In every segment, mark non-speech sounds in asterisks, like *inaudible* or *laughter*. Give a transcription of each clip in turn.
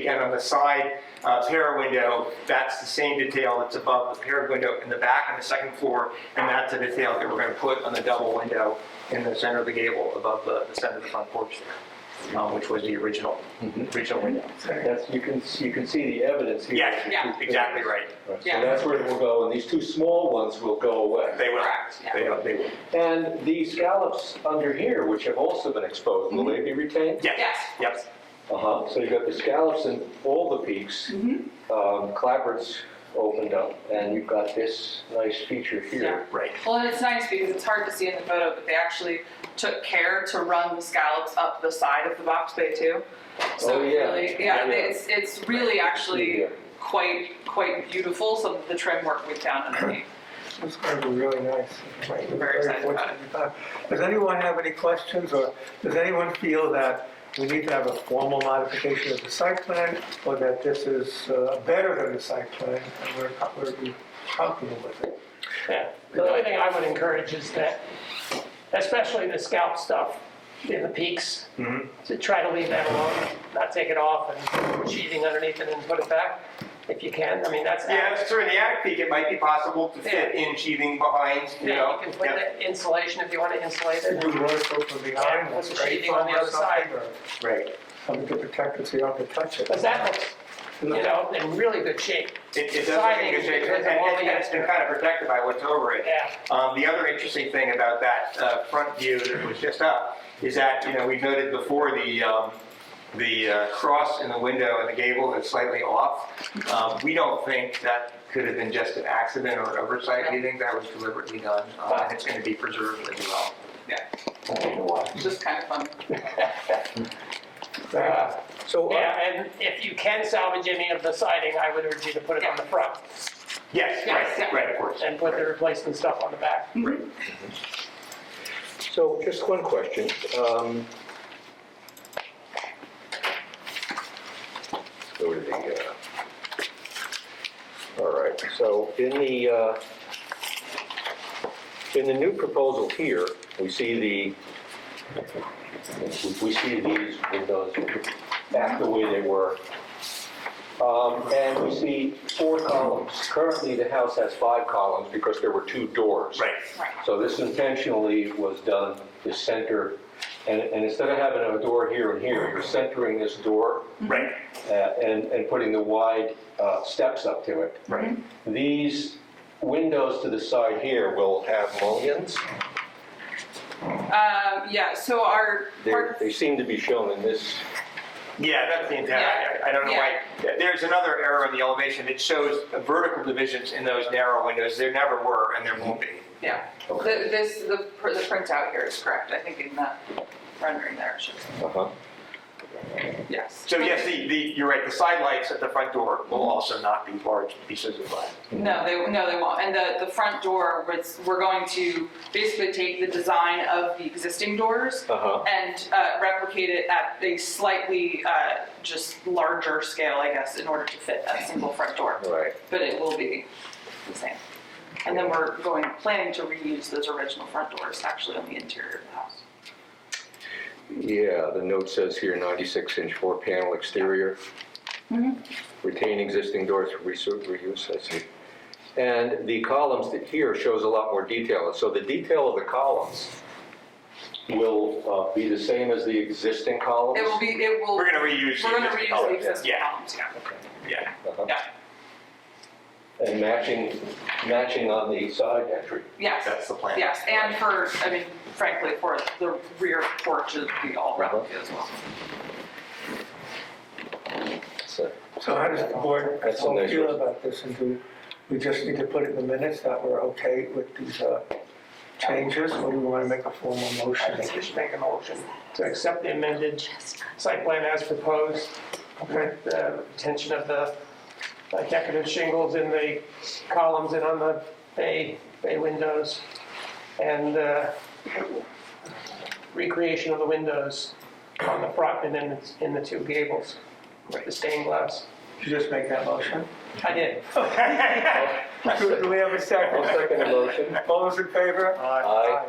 Again, on the side uh, pier window, that's the same detail that's above the pier window in the back on the second floor, and that's the detail that we're going to put on the double window in the center of the gable above the the center of the front porch there, um, which was the original, original window. That's, you can, you can see the evidence here. Yes, Yeah. exactly right. Right, So Yeah. that's where it will go, and these two small ones will go away. They will. Correct, yeah. They will, they will. And the scallops under here, which have also been exposed, will they be retained? Yes, Yes. yes. Uh-huh, so you've got the scallops in all the peaks, um, clapboards opened up, and you've got this nice feature here. Right. Well, and it's nice because it's hard to see in the photo, but they actually took care to run the scallops up the side of the box bay too. So Oh, it yeah. really, Yeah. yeah, it's, it's really actually Yeah. quite, quite beautiful, some of the trim work we've *coughs* done underneath. It's going to be really nice. We're Very excited about fortunate to have. Does anyone have any questions, or does anyone feel that we need to have a formal modification of the site plan, or that this is uh, better than the site plan, and we're co- we're comfortable with it? Yeah, the only thing I would encourage is that, especially the scalp stuff in the peaks, Mm-hmm. to try to leave that alone, not take it off and put sheathing underneath it and put it back, if you can, I mean, that's. Yeah, that's true. In the attic peak, it might be possible to fit in sheathing behind, you Yeah, know. you can put Yep. the insulation if you want to insulate We it. would want to go from behind, Yeah, with the right, sheathing on the or other side. something, or Right. Something to protect it so you don't have to touch it. Because that looks, you know, in really good shape, It, it does look in good shape, and, and it's been kind of protected by what's over it. yeah. Um, the other interesting thing about that uh, front view that was just up is that, you know, we noted before the, um, the uh, cross in the window and the gable is slightly off. Um, we don't think that could have been just an accident or an oversight. We think that was deliberately done, uh, and it's going to be preserved as well. Just kind of fun. Uh, So, uh, Yeah, and if you can salvage any of the siding, I would urge you to put it on the front Yes, Yes, right, yeah. right, of course. and put the replacement stuff on the back. So just one question. um, Go to the, uh, all right, so in the, uh, in the new proposal here, we see the, we see these windows back the way they were. Um, And we see four columns. Currently, the house has five columns because there were two doors. Right. So this intentionally was done, the center, and, and instead of having a door here and here, you're centering this door Right, uh, and, and putting the wide uh, steps up to it. right. These windows to the side here will have mullions. Um, yeah, so our, They're- They seem to be shown in this. Yeah, that's the intent. I- I I don't know why. There's another error in the elevation. It shows vertical divisions in those narrow windows. There never were, and there won't be. yeah, the, this, the, pr- the printout here is correct, I think in that rendering there, it should, Uh-huh. yes. So yes, the, the, you're right, the side lights at the front door will also not be large pieces of glass. No, they, no, they won't. And the, the front door, was we're going to basically take the design of the existing doors Uh-huh. and uh, replicate it at a slightly uh, just larger scale, I guess, in order to fit that single front door. Right. But it will be the same. And then we're going, planning to reuse those original front doors actually on the interior of the house. Yeah, the note says here 96-inch four-panel exterior. Mm-hmm. Retain existing doors for resu- reuse, I see. And the columns that here shows a lot more detail. And So the detail of the columns will uh, be the same as the existing columns? It will be, it will, We're we're gonna reuse. gonna these. reuse the existing Yeah. columns, yeah. Yeah, Uh-huh. Yeah, And matching, matching on the side entry. yes. that's the plan. Yes, and for, I mean, frankly, for the rear porch, it'd be all replica Uh-huh. as well. So- so how does the board That's a nice feel one. about this, and do we just need to put it in the minutes that we're okay with these uh, changes, or do we want to make a formal motion? I think we should make a motion to accept the amended site plan as proposed Okay. with the retention of the decorative shingles in the columns and on the bay, bay windows and uh, recreation of the windows on the front and then it's in the two gables, with the stained glass. Did you just make that motion? I did. Do do we have a I'll second? second the motion. *laughs* All those in favor? Aye.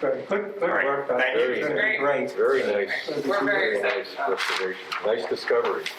Great, good, good All right, work. guys. thank you. This is Great. Great. Very nice. We're very Very excited nice about it. restoration. Nice discovery.